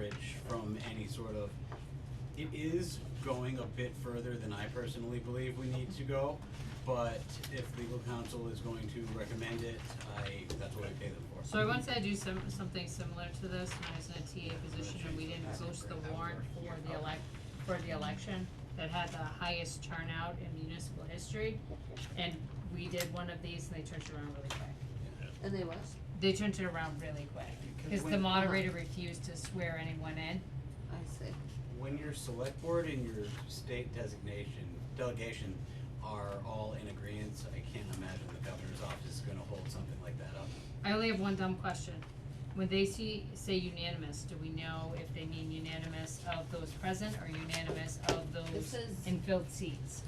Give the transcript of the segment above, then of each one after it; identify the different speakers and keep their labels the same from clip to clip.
Speaker 1: coverage from any sort of. It is going a bit further than I personally believe we need to go, but if legal counsel is going to recommend it, I, that's what I pay them for.
Speaker 2: So I once had to do some, something similar to this when I was in a TA position and we didn't post the warrant for the elec, for the election that had the highest turnout in municipal history. And we did one of these and they turned it around really quick.
Speaker 3: And they what?
Speaker 2: They turned it around really quick, cause the moderator refused to swear anyone in.
Speaker 3: I see.
Speaker 1: When your select board and your state designation, delegation are all in agreement, I can't imagine the governor's office is gonna hold something like that up.
Speaker 2: I only have one dumb question. When they see, say unanimous, do we know if they mean unanimous of those present or unanimous of
Speaker 3: It
Speaker 2: those
Speaker 3: says,
Speaker 2: in filled seats?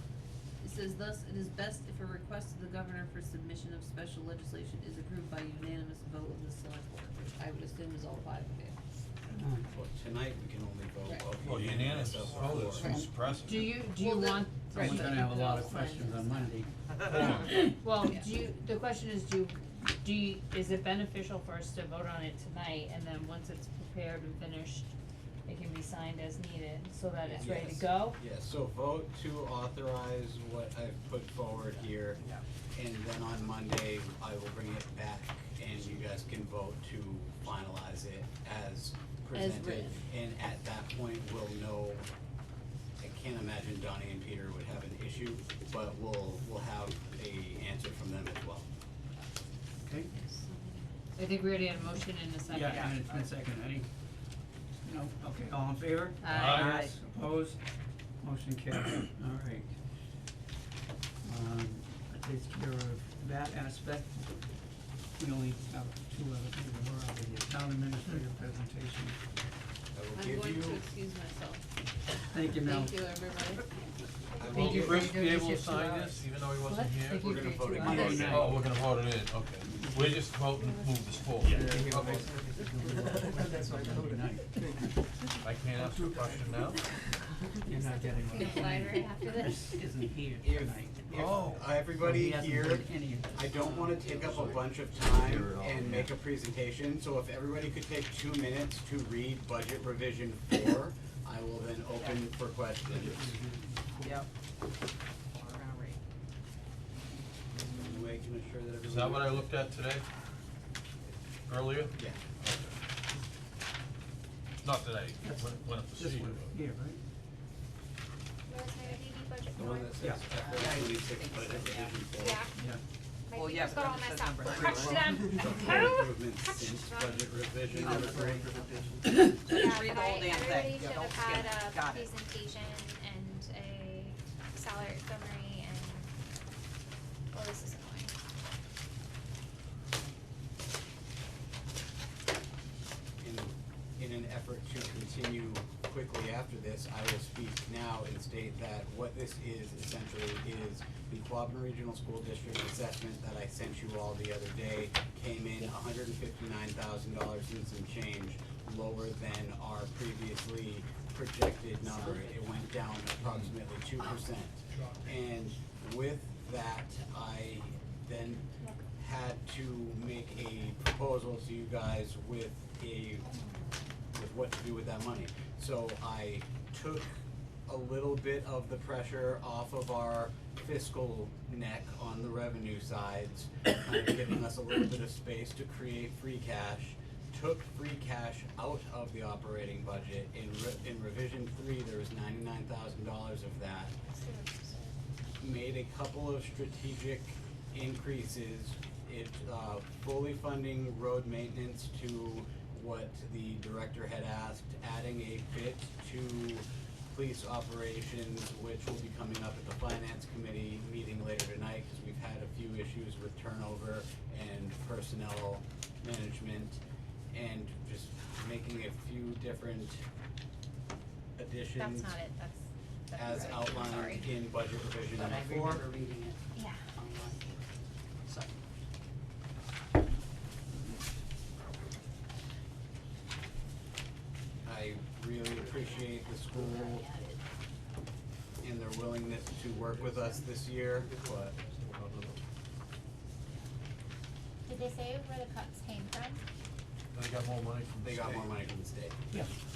Speaker 3: it says thus, it is best if a request to the governor for submission of special legislation is approved by unanimous vote of the select board, which I would assume is all five of you.
Speaker 1: Well, tonight, we can only vote.
Speaker 3: Right.
Speaker 4: Well, unanimous,
Speaker 1: of
Speaker 4: oh, that's
Speaker 1: four.
Speaker 4: who's present.
Speaker 2: Do you, do you
Speaker 3: Well, the-
Speaker 2: want?
Speaker 3: Right,
Speaker 5: Someone's
Speaker 3: but
Speaker 5: gonna
Speaker 3: you
Speaker 5: have a
Speaker 3: can
Speaker 5: lot
Speaker 3: also
Speaker 5: of questions
Speaker 3: sign
Speaker 5: on
Speaker 3: this.
Speaker 5: Monday.
Speaker 2: uh, Well,
Speaker 3: Yeah.
Speaker 2: do you, the question is, do, do you, is it beneficial for us to vote on it tonight and then once it's prepared and finished, it can be signed as needed so that it's ready to
Speaker 1: Yes.
Speaker 2: go?
Speaker 1: Yeah, so vote to authorize what I've put forward here. And then on Monday, I will bring it back and you guys can vote to finalize it as presented.
Speaker 3: written.
Speaker 1: And at that point, we'll know, I can't imagine Donnie and Peter would have an issue, but we'll, we'll have a answer from them as well.
Speaker 5: Okay.
Speaker 2: I think we already had a motion in a second.
Speaker 5: Yeah, and it's been seconded, any, no, okay, all in favor?
Speaker 2: Aye. Aye.
Speaker 5: Yes, opposed, motion carried, all right. Um, that takes care of that aspect. We only have two other things we're out of here, town administrator presentation.
Speaker 1: I will
Speaker 3: I'm
Speaker 1: give
Speaker 3: going
Speaker 1: you,
Speaker 3: to excuse myself.
Speaker 5: Thank you, Mel.
Speaker 3: Thank you, everybody.
Speaker 1: I
Speaker 2: Thank
Speaker 1: will,
Speaker 2: you.
Speaker 1: give-
Speaker 4: Chris
Speaker 2: You're
Speaker 4: be able
Speaker 2: gonna
Speaker 4: to
Speaker 2: get two
Speaker 4: sign
Speaker 2: hours.
Speaker 4: this, even though he wasn't
Speaker 2: What?
Speaker 4: here?
Speaker 2: Thank you
Speaker 1: We're
Speaker 2: for
Speaker 1: gonna
Speaker 2: your
Speaker 1: vote
Speaker 2: two
Speaker 1: it
Speaker 2: hours.
Speaker 5: Monday night.
Speaker 4: Oh, we're gonna vote it in, okay. We're just voting to move this forward. Okay.
Speaker 5: That's why I voted aye.
Speaker 4: I can't ask a question now?
Speaker 5: You're not getting one.
Speaker 3: Get lighter after this.
Speaker 5: Isn't here
Speaker 1: if,
Speaker 5: tonight.
Speaker 4: Oh.
Speaker 1: if everybody
Speaker 5: So he hasn't
Speaker 1: here.
Speaker 5: heard any of this.
Speaker 1: I don't wanna take up a bunch of time and make a presentation, so if everybody could take two minutes to read budget revision four, I will then open for questions.
Speaker 6: Yep. We're gonna read.
Speaker 1: Any way can assure that
Speaker 4: Is that what I
Speaker 1: everyone-
Speaker 4: looked at today? Earlier?
Speaker 1: Yeah,
Speaker 4: Not that I went- went up to
Speaker 5: This
Speaker 4: see
Speaker 5: one,
Speaker 4: you.
Speaker 5: here, right?
Speaker 7: Where's my DB budget
Speaker 1: the
Speaker 7: for?
Speaker 1: one that
Speaker 5: Yeah.
Speaker 1: says FY twenty-six budget revision
Speaker 7: Yeah,
Speaker 1: four.
Speaker 5: Yeah.
Speaker 7: my
Speaker 6: Well, yeah,
Speaker 7: fingers
Speaker 6: but
Speaker 7: got all
Speaker 6: then it says
Speaker 7: messed up.
Speaker 6: number three.
Speaker 7: Crushed them.
Speaker 1: Capital improvements since budget revision
Speaker 6: Oh,
Speaker 1: number
Speaker 6: that's
Speaker 1: three.
Speaker 7: Yeah,
Speaker 6: Read the
Speaker 7: but
Speaker 6: whole
Speaker 7: I-
Speaker 6: damn
Speaker 7: I
Speaker 6: thing.
Speaker 7: really
Speaker 6: Yeah,
Speaker 7: should have
Speaker 6: don't skip
Speaker 7: had a
Speaker 6: it. Got it.
Speaker 7: presentation and a salary summary and, well, this is annoying.
Speaker 1: in, in an effort to continue quickly after this, I will speak now and state that what this is essentially is the Quabbin Regional School District assessment that I sent you all the other day came in hundred and fifty-nine thousand dollars and some change lower than our previously projected number. It went down approximately two percent. And with that, I then had to make a proposal to you guys with a, with what to do with that money. So I took a little bit of the pressure off of our fiscal neck on the revenue sides, kind of giving us a little bit of space to create free cash. Took free cash out of the operating budget. In re- in revision three, there was ninety-nine thousand dollars of that made a couple of strategic increases. It, uh, fully funding road maintenance to what the director had asked, adding a bit to police operations, which will be coming up at the finance committee meeting later tonight, cause we've had a few issues with turnover and personnel management, and just making a few different additions
Speaker 7: That's not it, that's, that's
Speaker 1: as
Speaker 7: right. Sorry.
Speaker 1: outlined in budget revision
Speaker 5: But
Speaker 1: number
Speaker 5: I
Speaker 1: four.
Speaker 5: remember reading it
Speaker 7: Yeah.
Speaker 5: online. So,
Speaker 1: I really appreciate the school and their willingness to work with us this year, but
Speaker 7: Did they say where the cuts came from?
Speaker 4: They got more money from the
Speaker 1: they got
Speaker 4: state.
Speaker 1: more money from the state.
Speaker 5: yeah.